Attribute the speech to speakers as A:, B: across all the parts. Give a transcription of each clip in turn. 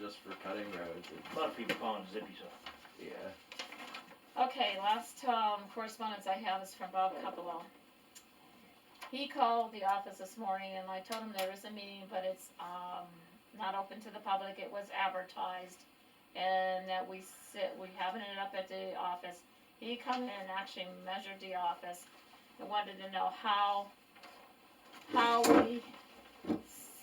A: just for cutting roads and,
B: A lot of people calling Zippy so.
A: yeah.
C: Okay, last um, correspondence I have is from Bob Capello. He called the office this morning and I told him there was a meeting, but it's um, not open to the public. It was advertised. And that we sit, we having it up at the office. He come in and actually measured the office and wanted to know how, how we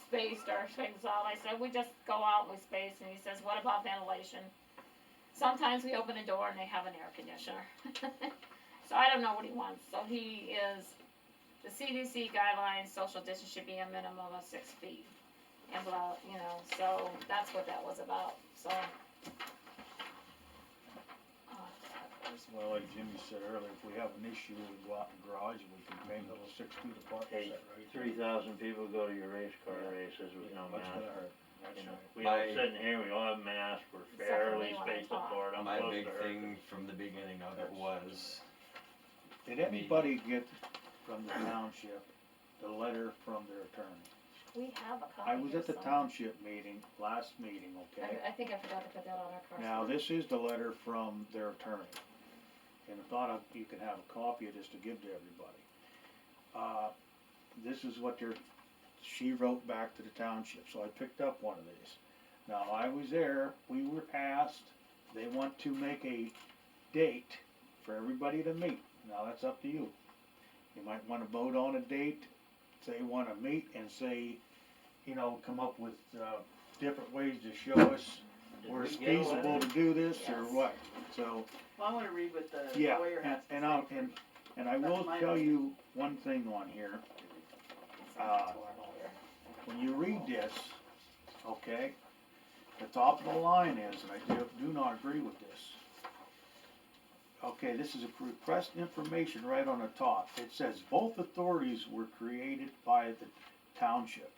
C: spaced our things out. I said, we just go out and we space. And he says, what about ventilation? Sometimes we open a door and they have an air conditioner. so I don't know what he wants. So he is, the CDC guidelines, social distance should be a minimum of six feet. And blah, you know, so that's what that was about, so. Uh,
D: Well, like Jimmy said earlier, if we have an issue, we go out in the garage and we can paint a little six feet apart, is
B: Hey,
D: that right?
B: Three thousand people go to your race car races with
D: Yeah,
B: no
D: That's
B: mask.
D: gonna hurt, that's
B: You know,
D: right.
B: we all
A: My-
B: sitting here, we all have masks, we're
C: Except for
B: fairly
C: me when I
B: spaced
C: talk.
B: apart, I'm
A: My
B: close
A: big
B: to her.
A: thing from the beginning of it was,
D: Did anybody get from the township the letter from their attorney?
C: We have a copy
D: I was
C: here
D: at the
C: somewhere.
D: township meeting, last meeting, okay?
C: I, I think I forgot to put that on our correspondence.
D: Now, this is the letter from their attorney, and I thought of- you could have a copy of this to give to everybody. Uh, This is what their, she wrote back to the township, so I picked up one of these. Now, I was there, we were asked, they want to make a date for everybody to meet. Now, that's up to you. You might wanna vote on a date, say wanna meet, and say, you know, come up with, uh, different ways to show us
B: Did
D: or
B: we
D: it's
B: get a letter?
D: feasible to do this, or
C: Yes.
D: what, so,
E: Well, I wanna read what Uh, the
D: yeah,
E: lawyer
D: and,
E: has to say.
D: and I'll, and, and I will
E: That's my
D: tell
E: opinion.
D: you one thing on here,
C: It's
D: uh,
C: not too long here.
D: when you read this, okay? The top of the line is, and I do, do not agree with this. Okay, this is a request information right on the top, it says both authorities were created by the township.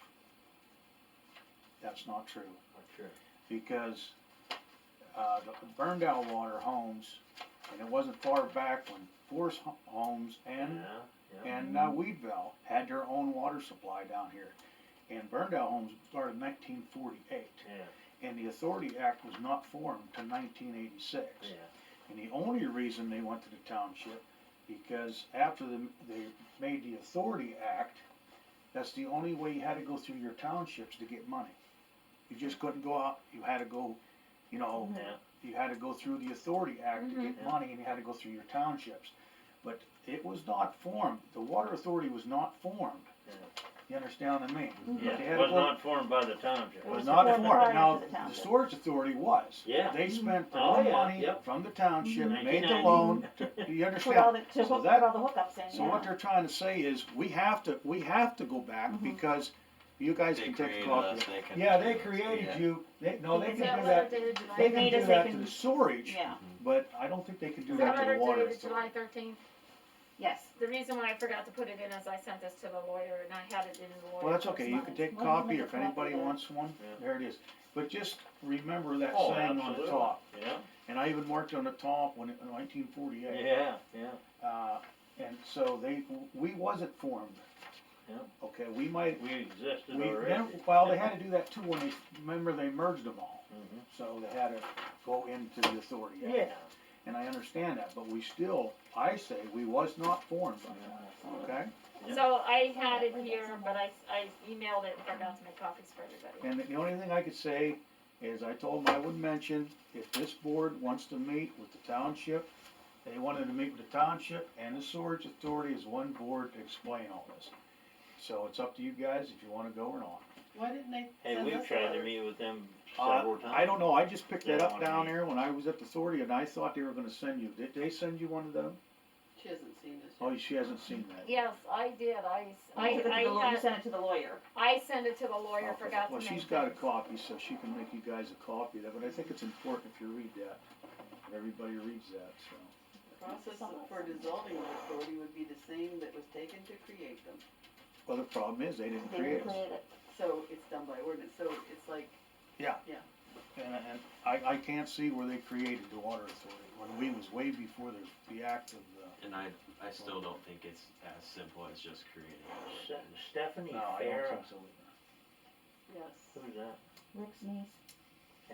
D: That's not true.
B: Sure.
D: because uh, the Burndale Water Homes, and it wasn't far back when Force Ho- Homes and
B: Yeah, yeah.
D: and uh, Weedville had their own water supply down here, and Burndale Homes started in 1948,
B: Yeah,
D: and the Authority Act was not formed till 1986.
B: yeah.
D: And the only reason they went to the township, because after the, they made the Authority Act, that's the only way you had to go through your townships to get money. You just couldn't go out, you had to go, you know,
B: Yeah.
D: you had to go through the Authority Act to
B: Mhm.
E: Mm-hmm.
D: get money and you had to go through your townships. But it was not formed, the Water Authority was not formed.
B: Yeah.
D: You understand what I mean? But
B: Yeah,
D: they
B: it
D: had to
B: was
D: go-
B: not formed by the township.
E: It
D: Was
E: was
D: not
E: formed
D: formed,
E: prior
D: now,
E: to the
D: the
E: township.
D: storage authority was.
B: Yeah.
D: They spent their
B: Oh,
D: own
B: yeah,
D: money
B: yep.
D: from the township,
E: Mm-hmm.
B: Mhm.
D: made the
B: 1990.
D: loan, to- you
E: Put all
D: understand?
E: the, to
D: So
E: hook,
D: that-
E: put all the hookups in, yeah.
D: So what they're trying to say is, we have to, we have to go back
E: Mhm.
D: because you guys
A: they
D: can take the
A: created
D: clock.
A: us, they can.
D: Yeah, they
A: do us, yeah.
D: created you, they, no, they
C: Is
D: can
C: that
D: do
C: letter
D: that,
C: dated
D: they
C: July
E: made
D: can do
E: us, they
D: that to
E: can-
D: the storage,
E: Yeah,
D: but I don't think they can do
C: Is
D: that
C: that
D: to
C: letter
D: the water
C: dated
D: authority.
C: July thirteenth?
E: yes.
C: The reason why I forgot to put it in is I sent this to the lawyer and I had it in the lawyer's.
D: Well, that's okay, you can
C: correspondence.
D: take a
E: Well, you
D: copy,
E: make a
D: if anybody
E: copy of that.
D: wants one,
B: Yeah.
D: there it is. But just remember that
B: Oh,
D: saying on the
B: absolutely.
D: top.
B: Yeah,
D: And I even worked on the top when, it- in nineteen forty-eight.
B: yeah, yeah.
D: Uh, and so they, we wasn't formed.
B: Yeah.
D: Okay, we might,
B: We existed
D: we,
B: already.
D: then- well, they had to do that too when they, remember they merged them all.
B: Mhm.
D: So they had to go into the authority. Act.
B: Yeah.
D: And I understand that, but we still, I say, we was not formed by that, okay?
B: Yeah.
C: So I had it here, but I, I emailed it and forgot to make copies for everybody.
D: And the only thing I could say is I told them I would mention, if this board wants to meet with the township, they wanted to meet with the township and the storage authority as one board to explain all this. So it's up to you guys if you wanna go or not.
E: Why didn't they
B: Hey,
E: send
B: we've
E: us a
B: tried to
E: letter?
B: meet with them
D: Uh,
B: several times.
D: I don't know, I just picked that
B: Yeah,
D: up
B: wanna
D: down
B: meet.
D: there when I was at the authority and I thought they were gonna send you, did they send you one of them?
E: She hasn't seen this
D: Oh,
E: yet.
D: she hasn't seen that.
C: Yes, I did, I, I,
E: You took it to the law-
C: I
E: You
C: had,
E: sent it to the lawyer.
C: I sent it to the lawyer,
D: Okay.
C: forgot to
D: Well,
C: make.
D: she's got a
C: copies.
D: copy, so she can make you guys a copy of that, but I think it's important if you read that, if everybody reads that, so.
E: The process of- for dissolving an authority would be the same that was taken to create them.
D: Well, the problem is, they didn't
E: They
D: create
E: didn't
D: it.
E: create it, so it's done by ordinance, so it's like,
D: And, and I, I can't see where they created the water authority, when we was way before the, the act of the,
F: And I, I still don't think it's as simple as just creating.
B: Se- Stephanie
D: no, I don't
B: Farah,
D: think so.
E: yes.
B: who's that?
G: Rick's niece.